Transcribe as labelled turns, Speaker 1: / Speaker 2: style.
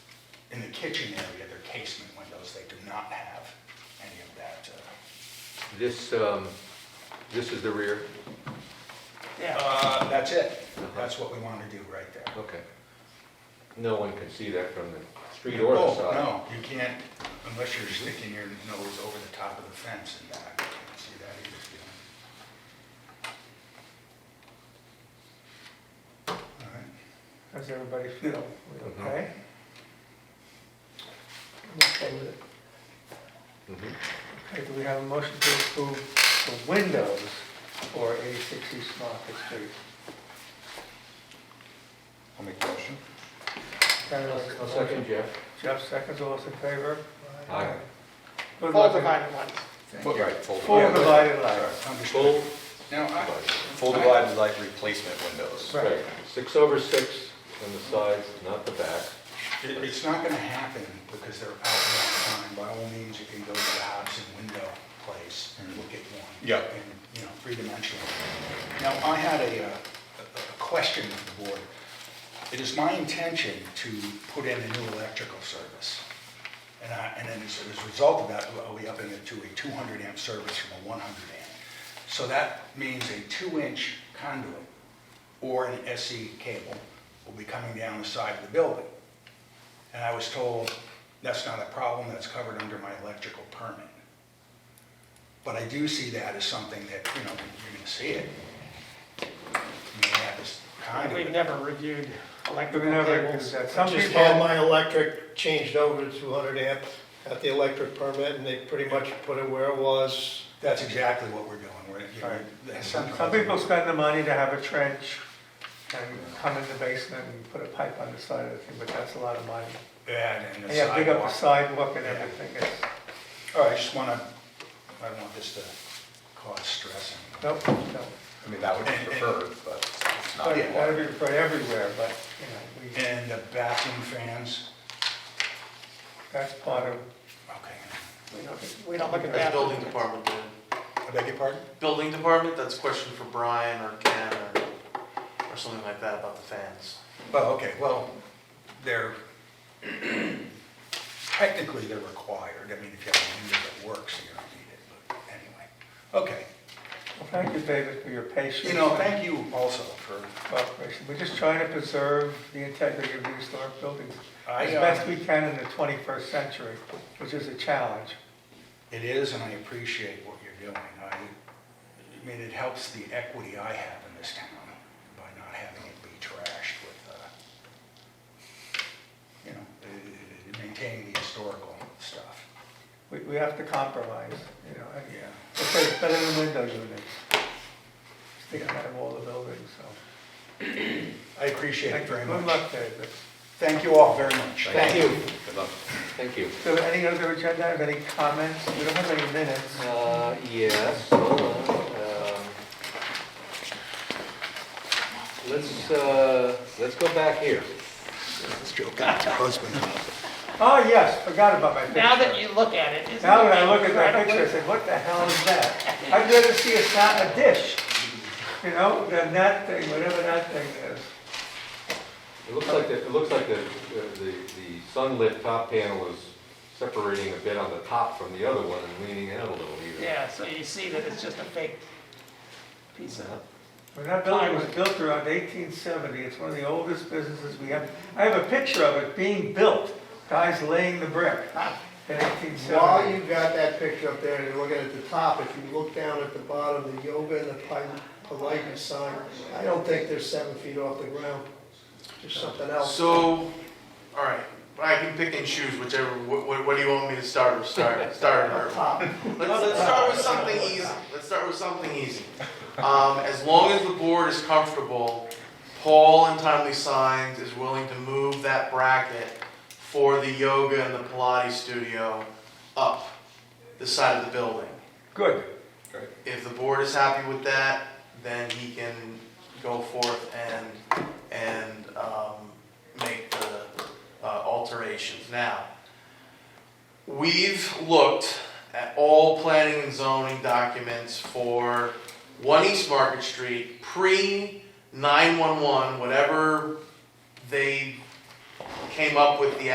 Speaker 1: kitchen area, their casement windows, they do not have any of that. uh,
Speaker 2: This, um, this is the rear?
Speaker 1: Uh, that's it. That's what we want to do right there.
Speaker 2: Okay. No one can see that from the street or the
Speaker 1: Oh,
Speaker 2: side.
Speaker 1: No, you can't, unless you're sticking your nose over the top of the fence and back, you can't see that either. you know. All right.
Speaker 3: How's everybody feel? We
Speaker 1: Mm-hmm.
Speaker 2: Mhm.
Speaker 3: okay? I'm okay with it.
Speaker 2: Mhm.
Speaker 3: Okay, do we have a motion to approve the windows for 86 East Market Street?
Speaker 4: I'll make the motion.
Speaker 3: Kind of like a
Speaker 2: I'll second Jeff.
Speaker 3: Jeff seconds, all those in favor?
Speaker 2: Aye.
Speaker 3: Good
Speaker 5: All
Speaker 3: luck.
Speaker 5: divided ones.
Speaker 1: Well,
Speaker 4: Right, full
Speaker 3: Full
Speaker 4: divided,
Speaker 3: divided light.
Speaker 1: Sorry, understood.
Speaker 2: Full,
Speaker 1: Now, I,
Speaker 4: full divided light replacement windows.
Speaker 3: Right.
Speaker 2: right, six over six on the sides, not the back.
Speaker 1: It- It's not gonna happen because they're out of time. By all means, you can go to the Hobson window place and look at one.
Speaker 4: Yeah.
Speaker 1: And, you know, three-dimensional. Now, I had a, uh, a a question of the board. It is my intention to put in a new electrical service. And I, and then as as a result of that, I'll be upping it to a 200 amp service from a 100 amp. So that means a two-inch conduit or an SE cable will be coming down the side of the building. And I was told, that's not a problem, that's covered under my electrical permit. But I do see that as something that, you know, you're gonna see it. You know, that is kind
Speaker 5: We've
Speaker 1: of,
Speaker 5: never reviewed
Speaker 3: We've
Speaker 5: electrical
Speaker 3: never,
Speaker 5: cables.
Speaker 3: somebody
Speaker 6: Just all my electric changed over to 200 amp, got the electric permit, and they pretty much put it where it was.
Speaker 1: that's exactly what we're doing, we're, you know, that's
Speaker 3: Some
Speaker 1: something-
Speaker 3: some people spend the money to have a trench and come in the basement and put a pipe on the side of the thing, but that's a lot of money.
Speaker 1: Yeah, and the
Speaker 3: And you have to dig up the
Speaker 1: sidewalk.
Speaker 3: sidewalk and everything, it's,
Speaker 1: All right, I just wanna, I don't want this to cause stress. and-
Speaker 3: nope, no.
Speaker 4: I mean, that would be preferred, but it's not.
Speaker 3: But
Speaker 4: required.
Speaker 3: that'd be for everywhere, but, you know, we,
Speaker 1: And the bathroom fans,
Speaker 3: that's part of,
Speaker 1: okay.
Speaker 5: We don't- We don't look at
Speaker 7: That's
Speaker 5: that.
Speaker 7: building department then.
Speaker 1: I beg your pardon?
Speaker 7: Building department, that's a question for Brian or Ken or, or something like that about the fans.
Speaker 1: Oh, okay, well, they're, technically they're required, I mean, if you have a unit that works, you don't need it, but anyway. Okay,
Speaker 3: well, thank you, David, for your patience.
Speaker 1: you know, thank you also for,
Speaker 3: Cooperation, we're just trying to preserve the integrity of the historic buildings
Speaker 1: I,
Speaker 3: as
Speaker 1: uh,
Speaker 3: best we can in the twenty-first century, which is a challenge.
Speaker 1: it is, and I appreciate what you're doing. I, I mean, it helps the equity I have in this town by not having it be trashed with, uh, you know, uh, maintaining the historical stuff,
Speaker 3: We, we have to compromise, you know, and
Speaker 1: yeah.
Speaker 3: It's better- better than window units. Sticking out of all the buildings, so.
Speaker 1: I appreciate it very
Speaker 3: Good
Speaker 1: much.
Speaker 3: luck, David.
Speaker 1: Thank you all very much.
Speaker 2: Thank
Speaker 5: you.
Speaker 2: Good luck. Thank you.
Speaker 3: So any other agenda, have any comments? We don't have any minutes.
Speaker 2: Uh, yes, hold on, um, Let's, uh, let's go back here.
Speaker 3: Oh, yes, forgot about my
Speaker 5: Now that
Speaker 3: picture.
Speaker 5: you look at it, isn't it?
Speaker 3: Now that I look at that
Speaker 5: incredible?
Speaker 3: picture, I said, what the hell is that? I'd rather see a sa, a dish, you know, than that thing, whatever that thing is.
Speaker 2: It looks like, the- it looks like the, the, the sunlit top panel is separating a bit on the top from the other one and leaning out a little even.
Speaker 5: Yeah, so you see that it's just a fake piece of,
Speaker 3: When that building was built around eighteen seventy, it's one of the oldest businesses we have. I have a picture of it being built, guys laying the brick in eighteen seventy.
Speaker 6: While you got that picture up there and you're looking at the top, if you look down at the bottom, the yoga and the Pilates sign, I don't think they're seven feet off the ground. There's something else.
Speaker 7: So, all right, I can pick and choose whichever, what, what what do you want me to start with, start, start or?
Speaker 6: Top.
Speaker 7: Let's, let's start with something easy. Let's start with something easy. Um, as long as the board is comfortable, Paul and Timely Signs is willing to move that bracket for the yoga and the Pilates studio up the side of the building.
Speaker 3: Good.
Speaker 7: If the board is happy with that, then he can go forth and, and, um, make the uh, alterations. Now, we've looked at all planning and zoning documents for One East Market Street, pre nine-one-one, whatever they came up with the